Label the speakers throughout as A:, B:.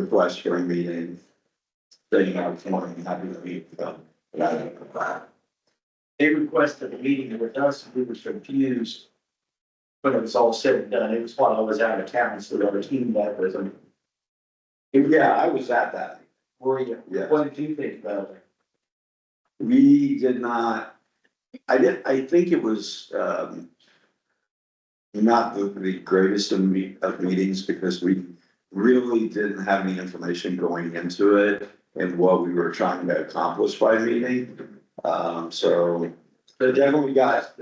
A: request for a meeting. Saying I was wanting, happy to meet them. and I didn't comply.
B: They requested a meeting with us, we were confused. When it was all said and done, it was while I was out of town, so the other team that was, um,
A: Yeah, I was at that,
B: were you,
A: yeah.
B: what did you think about it?
A: We did not, I did, I think it was, um. Not the, the greatest of me, of meetings because we really didn't have any information going into it. And what we were trying to accomplish by meeting, um, so
B: So
A: definitely got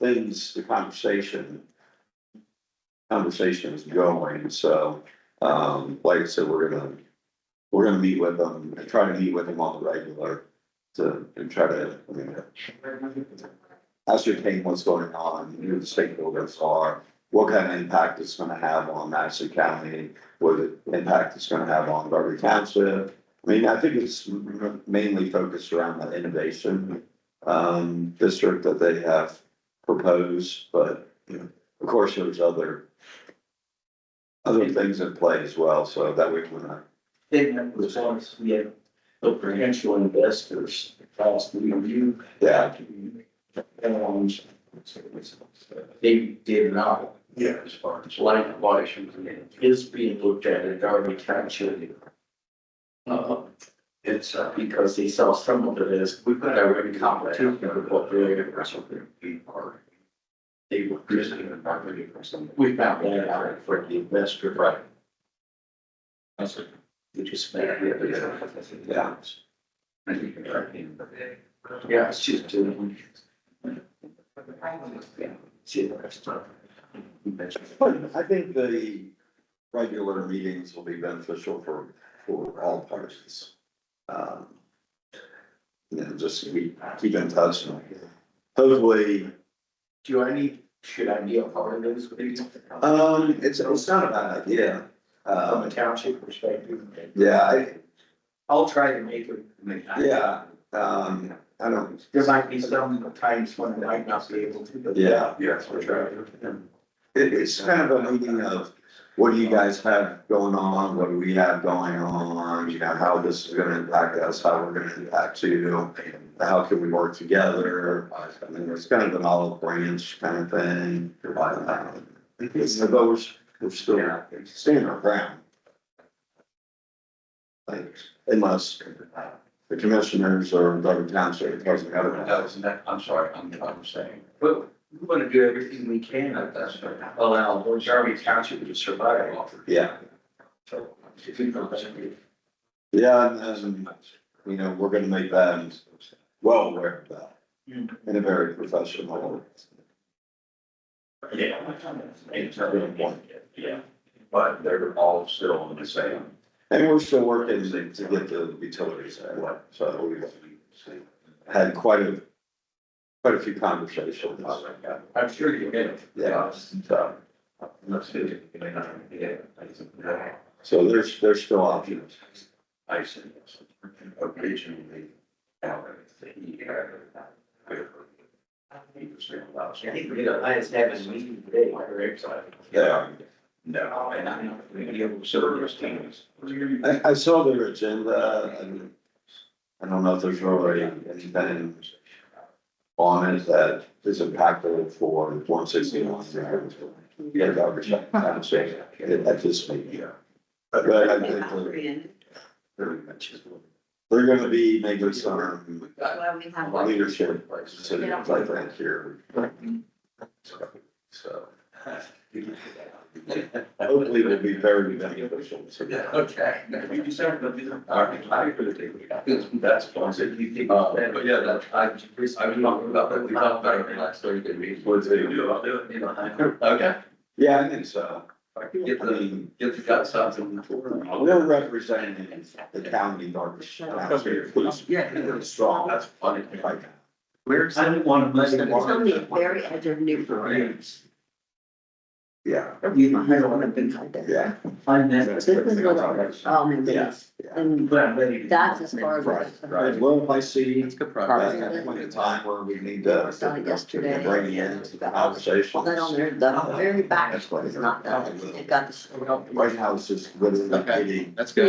A: things, the conversation. Conversations going, so, um, like I said, we're gonna, we're gonna meet with them, and try to meet with them on the regular. To, and try to, I mean, ascertain what's going on, who the stakeholders are, what kind of impact it's gonna have on Madison County, what impact it's gonna have on Garber Township. I mean, I think it's mainly focused around the innovation, um, district that they have proposed, but, you know, of course, there's other other things at play as well, so that we can, uh,
B: Then that was once we had the potential investors, last we reviewed.
A: yeah,
B: And they did not
C: Yeah.
B: as far as light pollution is being looked at in Darby Township. Uh, it's uh, because they saw some of it as, we've got our own competition with what they're. They were presenting a property for some. We found that out for the investor. Right. That's it. We just made it.
A: Yeah.
B: Yeah, it's just doing. See the rest of it.
A: I think the regular meetings will be beneficial for, for all parties. Um, You know, just we keep in touch and hopefully,
B: Do I need, should I be a part of those meetings?
A: um, it's, it's not a bad idea.
B: From a
A: Um,
B: township perspective,
A: yeah, I,
B: I'll try to make it.
A: yeah, um, I don't,
B: There might be some times when I might not be able to. but-
A: yeah.
C: Yes,
B: I'll try to.
A: It, it's kind of a meeting of, what do you guys have going on, what do we have going on, you know, how this is gonna impact us, how we're gonna impact you. How can we work together, I mean, it's kind of an olive branch kind of thing. Um, It's, but we're, we're still staying our ground. Like, unless the commissioners or Doug Township tells me otherwise.
C: I'm sorry, I'm, I'm saying.
B: But we want to do everything we can at that, allow Darby Township to survive.
A: Yeah,
B: So, if you know, that's a good-
A: yeah, and, and, you know, we're gonna make them well aware of that. in a very professional.
B: Yeah. Yeah.
C: But they're all still in the same.
A: And we're still working to to get the utilities that way, so we had quite a, quite a few conversations.
B: I'm sure you get
A: Yeah, so,
C: Let's do it. Yeah.
A: so there's, there's still options.
C: I said, originally, out of the, he had. He was saying about.
B: I think we're gonna, I just have a meeting today, my website.
A: Yeah.
C: No, and I know, we have service teams.
A: I, I saw their agenda and I don't know if there's already anything on it that is impactful for one sixty-one. Yeah, that would check, that would check, at this meeting.
C: Yeah.
A: But I think the-
C: Very much is what-
A: They're gonna be making some
D: Well, we have one.
A: leadership decisions like that here. So hopefully it'll be very beneficial to
C: Yeah,
A: them.
C: okay. You deserve to be the. All right, I agree with you. That's what I said, you think. Uh, but yeah, that, I, I'm talking about that, we talked about it last Thursday meeting.
A: What do you do?
C: I'll do it, you know. Okay.
A: Yeah, I think so.
C: Get
A: I
C: the,
A: mean,
C: get the guts out of them.
A: we're representing the county, our county, police,
C: Yeah.
A: strong.
C: That's funny.
A: if I can.
C: Where's?
B: I don't want to miss
D: It's on the very edge of Newbury.
A: Yeah,
D: You don't want to be like that.
A: yeah.
B: I'm
D: This is what, oh my goodness, and
B: But I'm ready. to-
D: that's as far as.
A: Right,
D: I've
A: right.
D: heard.
A: Well, if I see
C: It's good
A: at that point in time where we need to.
D: Saw it yesterday.
A: Bring in to the
D: Well,
A: conversation.
D: that on there, the very back is not done, they've got the.
A: White House is literally
C: Okay.
A: getting
C: That's